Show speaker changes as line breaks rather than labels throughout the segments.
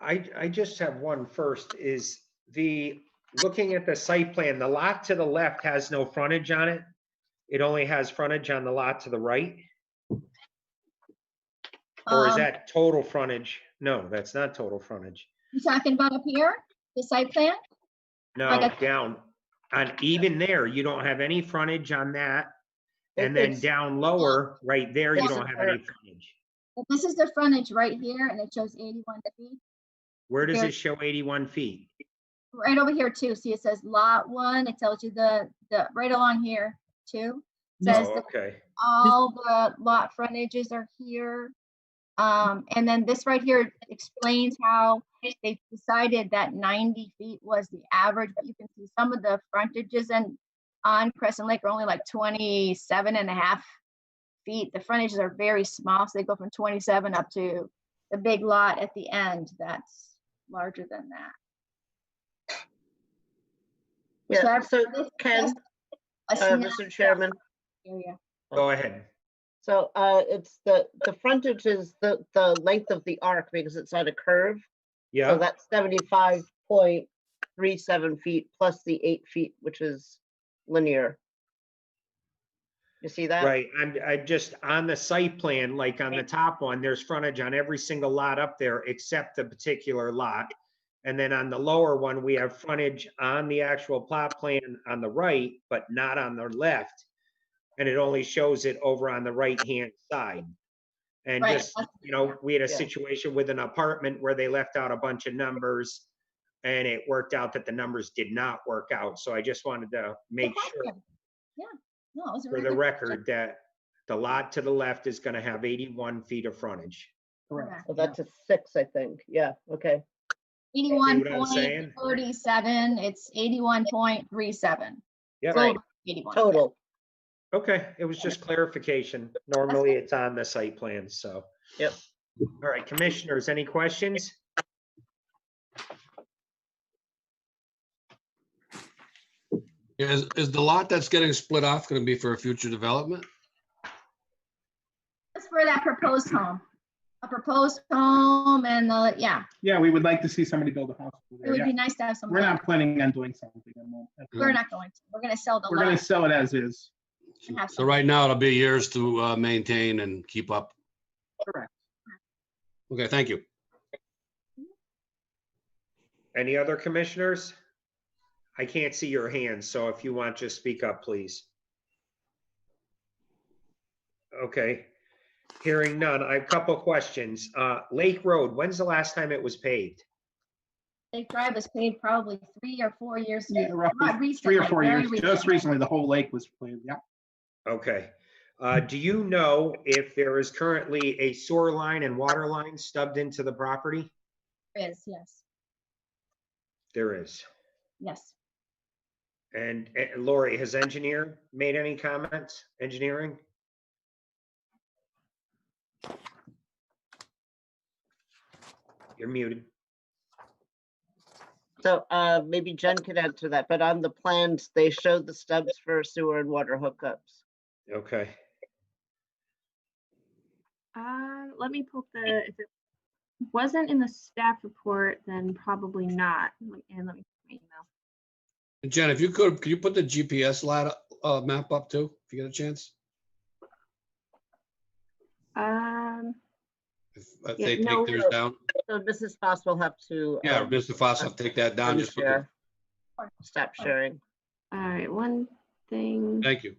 I, I just have one first, is the, looking at the site plan, the lot to the left has no frontage on it. It only has frontage on the lot to the right, or is
Um,
that total frontage? No, that's not total frontage.
You talking about up here, the site plan?
No,
got-
down, on even there, you don't have any frontage on that. And then
It's-
down lower, right there, you
Doesn't
don't have any frontage.
But This is the frontage right here, and it shows 81 feet.
Where does
There-
it show 81 feet?
Right over here too, see it says lot one, it tells you the, the, right along here too. Says
Oh,
the
okay.
all the lot frontages are here. Um, and then this right here explains how they decided that ninety feet was the average, but you can see some of the frontages and on Crescent Lake are only like 27 and a half feet. The frontages are very small, so they go from twenty-seven up to the big lot at the end that's larger than that.
Yeah, so
This- a
Ken, uh, Mr.
snapshot
Chairman,
area.
Go ahead.
so, uh, it's the, the frontage is the, the length of the arc because it's on a curve. So
Yeah,
that's seventy-five point three seven feet plus the eight feet, which is linear. You see that?
right. I'm, I just, on the site plan, like on the top one, there's frontage on every single lot up there except the particular lot. And then on the lower one, we have frontage on the actual plot plan on the right, but not on the left. And it only shows it over on the right-hand side. And
Right,
just you know, we had a
Yeah.
situation with an apartment where they left out a bunch of numbers. And it worked out that the numbers did not work out, so I just wanted to make sure
Question. Yeah, no, it was a
for
really
the
good
record that the lot to the left is gonna have eighty-one feet of frontage.
Correct.
So that's a six, I think. Yeah, okay.
Eighty-one
what I'm saying?
point thirty-seven, it's eighty-one point three seven.
Yeah,
Right.
Eighty-one.
Total.
okay, it was just clarification. Normally, it's on the site plan, so.
Yep.
All right, commissioners, any questions?
Yeah, Is, is the lot that's getting split off gonna be for a future development?
That's for that proposed home. A proposed home and the, yeah,
Yeah, we would like to see somebody build a house.
it
over there,
would be
yeah.
nice to have some.
We're
land.
not planning on doing something. at the moment.
We're not going to. We're gonna sell the
We're gonna
lot.
sell it as is.
and have
So
some-
right now, it'll be yours to uh, maintain and keep up.
Correct.
Okay, thank you.
Any other commissioners? I can't see your hands, so if you want, just speak up, please. Okay, hearing none. I have a couple questions. Uh, Lake Road, when's the last time it was paved?
They drive was paid probably three or four years
Yeah,
ago. Not
Roughly three or
recently,
four
very
years, just
recently.
recently, the whole lake was cleared, yeah.
Okay. Uh, do you know if there is currently a sewer line and water line stubbed into the property?
There Is, yes,
There is.
yes.
And uh, Lori, has engineer made any comments? Engineering? You're muted.
So uh, maybe Jen could answer that, but on the plans, they showed the stubs for sewer and water hookups.
Okay.
Um, let me pull up the, if it wasn't in the staff report, then probably not. Let- And let me, my email.
Jen, if you could, could you put the GPS lat, uh, map up too, if you get a chance?
Um,
If if
Yeah,
they
no,
take theirs
no.
down,
So Mrs. Foss will have to.
yeah,
um,
Mr. Foss, I'll take that down, just, put the-
unshare. Stop sharing.
all right, one thing.
thank you.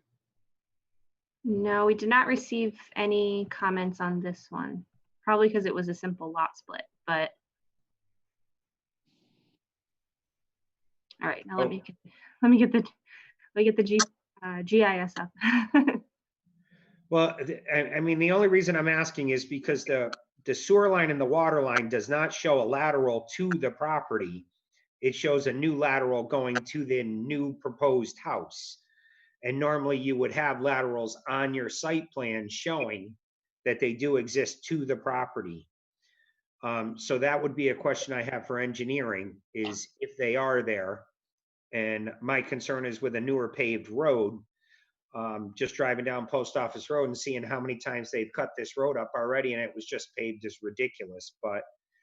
No, we did not receive any comments on this one. Probably because it was a simple lot split, but. All right, now
Oh.
let me, get- let me get the, let me get the G, uh, GIS up.
Well, th- I, I mean, the only reason I'm asking is because the, the sewer line and the water line does not show a lateral to the property. It shows a new lateral going to the new proposed house. And normally you would have laterals on your site plan showing that they do exist to the property. Um, so that would be a question I have for engineering is if they are there. And my concern is with a newer paved road, um, just driving down Post Office Road and seeing how many times they've cut this road up already, and it was just paved is ridiculous, but